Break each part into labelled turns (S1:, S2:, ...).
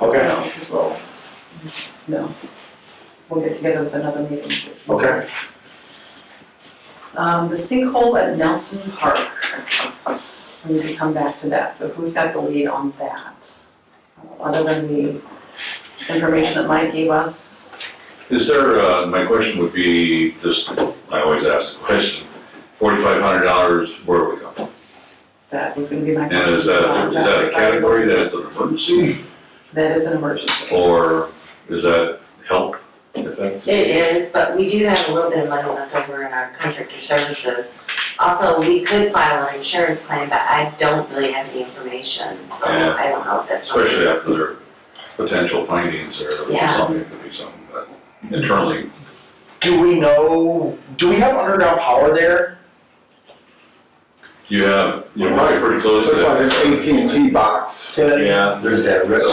S1: Okay,
S2: No, because we'll, no, we'll get together with another meeting.
S1: okay.
S2: Um, the sinkhole at Nelson Park, we need to come back to that, so who's got the lead on that? Other than the information that Mike gave us,
S3: Is there, uh, my question would be, just, I always ask the question, forty-five hundred dollars, where do we go?
S2: that was gonna be my question.
S3: And is that, is that a category that is an emergency,
S2: That is an emergency.
S3: or is that help, if that's?
S4: It is, but we do have a little bit of money left over in our contractor services. Also, we could file an insurance claim, but I don't really have any information, so
S3: Yeah.
S4: I don't know if that's. something-
S3: Especially after their potential findings or
S4: Yeah.
S3: something, could be something, but internally,
S1: Do we know, do we have underground power there?
S3: you have, you're probably pretty close to
S5: This one
S3: that.
S5: is AT&T box.
S1: Say that again.
S3: Yeah,
S5: There's that
S3: red
S5: Yeah,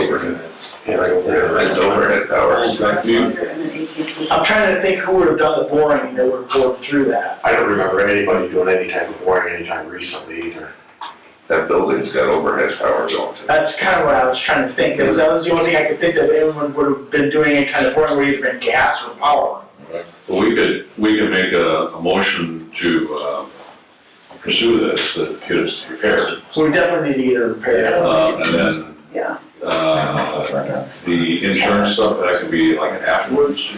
S5: right over there.
S3: it's overhead power.
S2: That's
S3: You-
S2: under and then AT&T.
S1: I'm trying to think who would have done the boring that would have bored through that.
S5: I don't remember anybody doing any type of boring anytime recently either.
S6: That building's got overhead power going to it.
S1: That's kind of what I was trying to think, because that was the only thing I could think that anyone would have been doing it kind of boring, would either been gas or power.
S3: Well, we could, we could make a, a motion to, uh, pursue this, that get us prepared.
S1: So we definitely need to either repair that.
S3: Uh, and then,
S2: Yeah,
S3: uh, the insurance stuff, that could be like afterwards.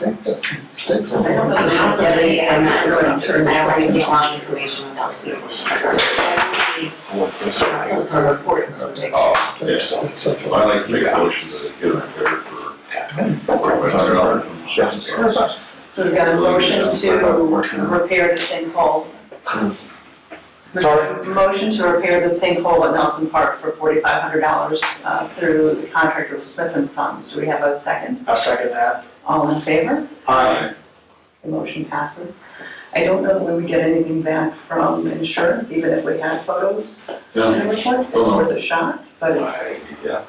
S2: I don't know
S4: Um,
S2: the answer.
S4: Possibly, I'm not
S2: It's an
S4: really sure, I
S2: insurance
S4: don't want to
S2: claim.
S4: give long information without speaking. to her. I would need Some sort of report and something.
S3: Yeah, so I'd like to make a motion to get them prepared for forty-five hundred dollars from insurance.
S2: so we've got a motion to repair the sinkhole.
S1: Sorry?
S2: Motion to repair the sinkhole at Nelson Park for forty-five hundred dollars, uh, through the contractor with Smith and Sons. Do we have a second?
S1: I'll second that. Uh,
S2: All in favor?
S1: Aye.
S2: The motion passes. I don't know that we would get anything back from insurance, even if we had photos.
S3: Yeah,
S2: It's worth a shot, but it's,
S3: yeah,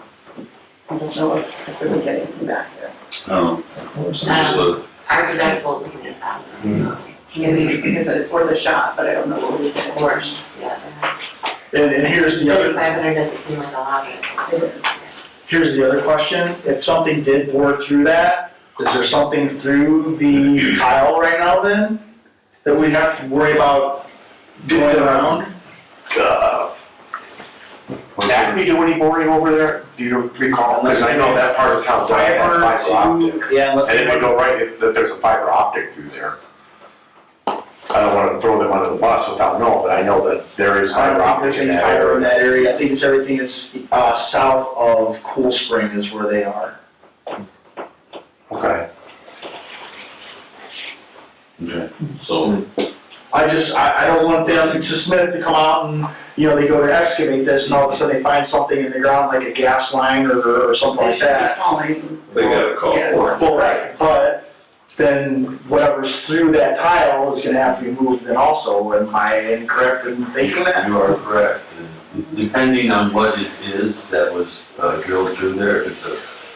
S2: I don't know if if we would get anything back there.
S3: I don't know, it's just a,
S4: Our deductible is only a thousand, so,
S2: Maybe because it's worth a shot, but I don't know what we can
S4: of
S2: afford.
S4: course, yes.
S1: And, and here's the other.
S4: Thirty-five hundred doesn't seem like a lot, but
S2: It
S4: it
S2: is.
S4: is.
S1: Here's the other question, if something did bore through that, is there something through the tile right now then? That we'd have to worry about going around?
S5: Uh, Would Acme do any boring over there? Do you recall? Because I know that part of town does
S1: Fiber
S5: have fiber optic.
S1: to, yeah, unless.
S5: And it would go right if, if there's a fiber optic through there. I don't wanna throw them under the bus without knowing, but I know that there is
S1: I
S5: fiber
S1: don't think
S5: optic
S1: there's
S5: in
S1: any
S5: that
S1: fiber in
S5: area.
S1: that area, I think it's everything is, uh, south of Cool Spring is where they are.
S5: Okay,
S3: okay, so,
S1: I just, I, I don't want them to Smith to come out and, you know, they go to excavate this and all of a sudden they find something in the ground like a gas line or, or something
S2: They
S1: like
S2: should be
S1: that.
S2: calling.
S3: they got a call for it.
S1: Well, right, but then whatever's through that tile is gonna have to be moved then also, am I incorrect in thinking that?
S7: You are correct. Depending on what it is that was uh, drilled through there, if it's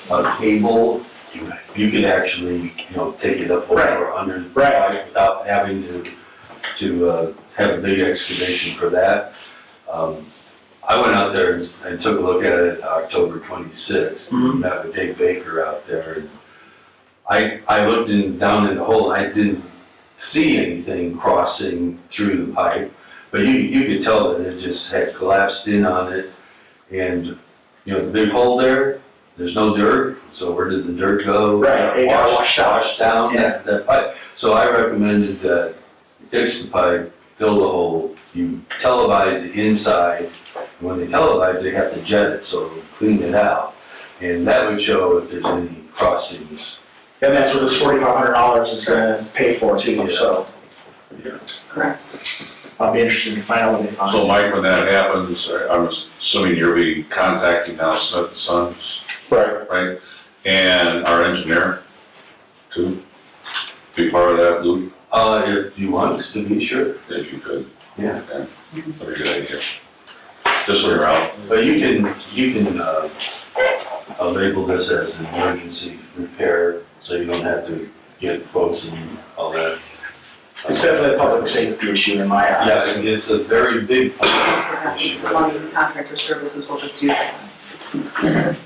S7: a, a cable,
S5: you guys.
S7: you could actually, you know, take it up over or under the
S1: Right.
S7: pipe without having to, to uh, have a big excavation for that. Um, I went out there and s- and took a look at it October twenty-sixth,
S1: Mhm.
S7: met with Dave Baker out there. and I, I looked in, down in the hole, and I didn't see anything crossing through the pipe. But you, you could tell that it just had collapsed in on it. And, you know, the big hole there, there's no dirt, so where did the dirt go?
S1: Right, it got washed out.
S7: Washed down that, that pipe. So I recommended that you fix the pipe, fill the hole, you televise the inside. And When they televise, they have to jet it, so clean it out. And that would show if there's any crossings.
S1: And that's what this forty-five hundred dollars is gonna pay for too, so.
S3: Yeah.
S2: Correct.
S1: I'll be interested to find out what they find.
S3: So Mike, when that happens, I- I'm assuming you'll be contacting now Smith and Sons?
S1: Right.
S3: right? And our engineer to be part of that loop,
S7: Uh, if you want us to be sure.
S3: if you could.
S7: Yeah.
S3: Okay. That'd be a good idea. Just when you're out,
S7: But you can, you can, uh, uh, label this as an emergency repair, so you don't have to get quotes and all that.
S1: It's definitely a public safety issue in my eyes.
S7: Yes, it's a very big
S2: We're not- Calling contractor services, we'll just use it.